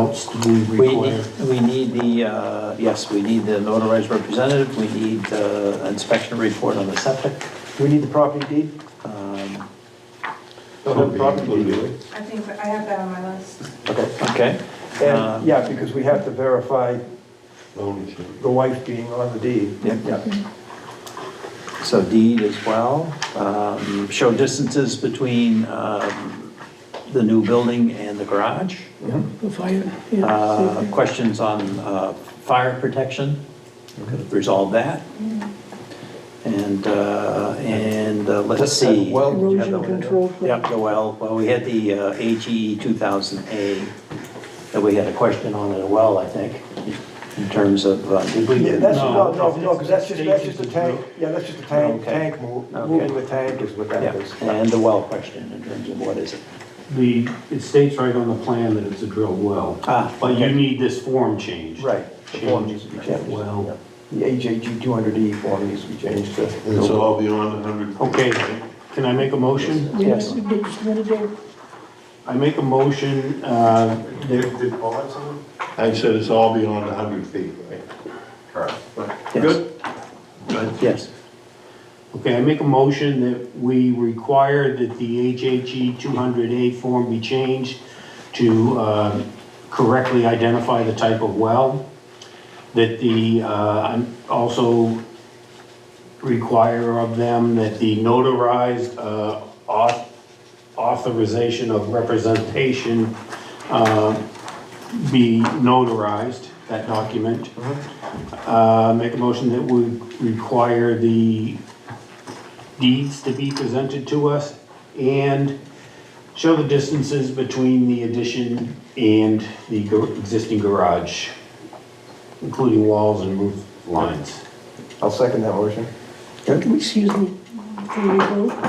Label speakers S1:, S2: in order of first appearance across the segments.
S1: else do we
S2: We
S1: require?
S2: need, we need the, uh, yes, we need the notarized representative, we need uh, inspection report on the septic.
S3: Do we need the property deed?
S2: Um,
S3: Don't have the property deed.
S4: I think I have that on my list.
S3: Okay.
S2: Okay? Uh,
S3: And, yeah, because we have to verify
S5: Ownership.
S3: the wife being on the deed.
S2: Yep. So deed as well. Um, Show distances between um, the new building and the garage.
S3: Mm-hmm.
S6: The fire, yeah, same
S2: Uh,
S6: thing.
S2: Questions on uh, fire protection, resolve that. And, uh, and uh, let's
S1: That's that
S2: see.
S1: well- did you have
S6: erosion
S1: that one?
S6: control. plan.
S2: Yep, the well, well, we had the uh, HE 2000A that we had a question on as well, I think, in terms of, uh, did we?
S3: Yeah, that's, no,
S1: No.
S3: no, no, because that's just, that's just a
S1: Stages.
S3: tank, yeah, that's just a tank,
S2: Okay.
S3: tank move,
S2: Okay.
S3: moving the tank is what
S2: Yeah,
S3: that is.
S2: And the well question in terms of what is it?
S1: The, it states right on the plan that it's a drilled well.
S2: Ah,
S1: But you
S2: okay.
S1: need this form changed.
S3: Right. The form
S1: Change
S3: needs to be changed.
S1: well.
S3: The AJG two hundred E form needs to be changed to.
S5: It's all beyond a hundred.
S1: Okay, can I make a motion?
S6: Yeah,
S2: Yes.
S6: you did- you wanna do-
S1: I make a motion, uh, that-
S5: I said it's all beyond a hundred feet, right? Correct.
S2: Yes.
S5: Good? Good.
S2: Yes,
S1: okay, I make a motion that we require that the HHE 200A form be changed to uh, correctly identify the type of well, that the, uh, I'm also require of them that the notarized uh, au- authorization of representation uh, be notarized, that document. Uh, Make a motion that would require the deeds to be presented to us and show the distances between the addition and the gar- existing garage, including walls and roof lines.
S3: I'll second that motion.
S6: Can we, excuse me, before we vote,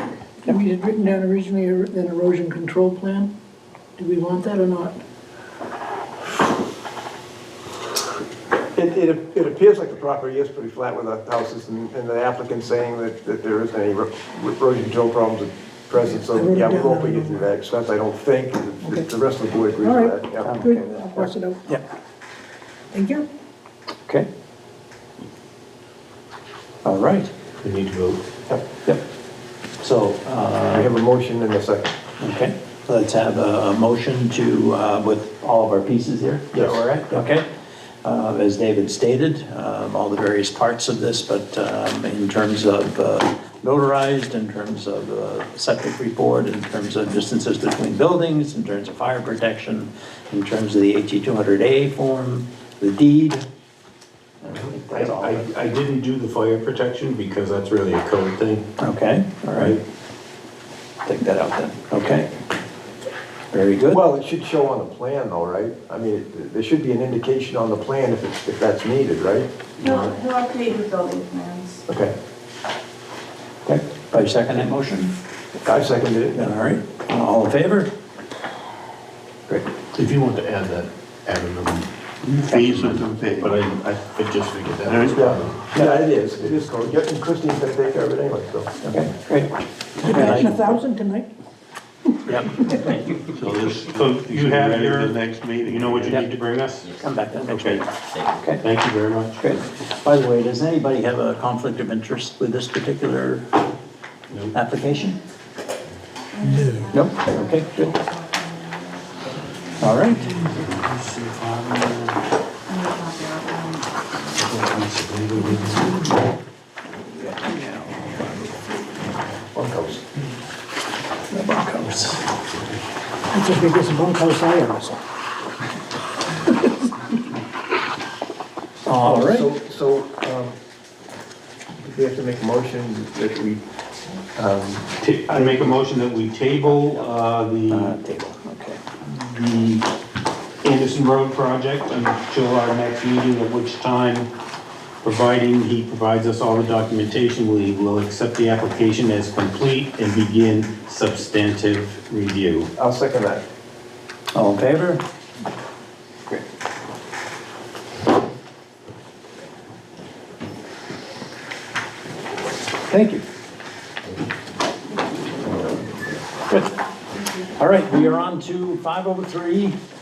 S6: that we had written down originally er- an erosion control plan? Do we want that or not?
S3: It, it, it appears like the property is pretty flat with the houses and, and the applicant saying that, that there isn't any ro- erosion control problems at present,
S6: I
S3: so,
S6: wrote it
S3: yeah, we
S6: down.
S3: won't be getting to that expense, I don't think,
S6: Okay.
S3: the the rest of the board agrees
S6: All right.
S3: with that. yeah.
S6: Good, I'll pass it out.
S2: yeah,
S6: Thank you.
S2: okay. All right,
S1: We need to vote.
S2: yep. So, uh,
S3: We have a motion and a second.
S2: Okay, let's have a a motion to, uh, with all of our pieces here. Is that all right? Okay. Uh, As David stated, um, all the various parts of this, but um, in terms of uh, notarized, in terms of uh, septic report, in terms of distances between buildings, in terms of fire protection, in terms of the HE 200A form, the deed. I think
S1: I,
S2: That's all.
S1: I I didn't do the fire protection because that's really a code thing.
S2: Okay, all right. Take that out then. Okay. Very good.
S3: Well, it should show on the plan though, right? I mean, it- there should be an indication on the plan if, it's- if that's needed, right?
S4: He'll, he'll update your building plans.
S3: Okay,
S2: Okay, I second that motion.
S3: I seconded
S2: All
S3: it.
S2: right, all in favor? Great.
S1: If you want to add that, add another,
S5: Fees are to pay.
S1: but I, I- I just figured that.
S5: There is-
S3: Yeah, yeah, it is, it is, going- yeah, and Christine's gonna take care of it anyway, so.
S2: Okay, great.
S6: Imagine a thousand tonight.
S2: Yep,
S5: So this.
S1: So you have
S5: ready for
S1: your-
S5: The next meeting.
S1: You know what you
S2: Yeah.
S1: need to bring us?
S2: come back then.
S1: Okay,
S2: Okay,
S1: thank you very much.
S2: great. By the way, does anybody have a conflict of interest with this particular application? No. Nope, okay, good. All right,
S4: Um,
S3: Bunkhouse.
S2: the bunkhouse.
S6: That's the biggest bunkhouse I ever saw.
S2: All right,
S3: So, so, um, we have to make a motion that we, um,
S1: Ta- I make a motion that we table, uh,
S2: uh,
S1: the,
S2: table, okay.
S1: the Anderson Road project until our next meeting, at which time, providing he provides us all the documentation, we will accept the application as complete and begin substantive review.
S3: I'll second that.
S2: All in favor? Great. Thank you. Good. All right, we are on to 503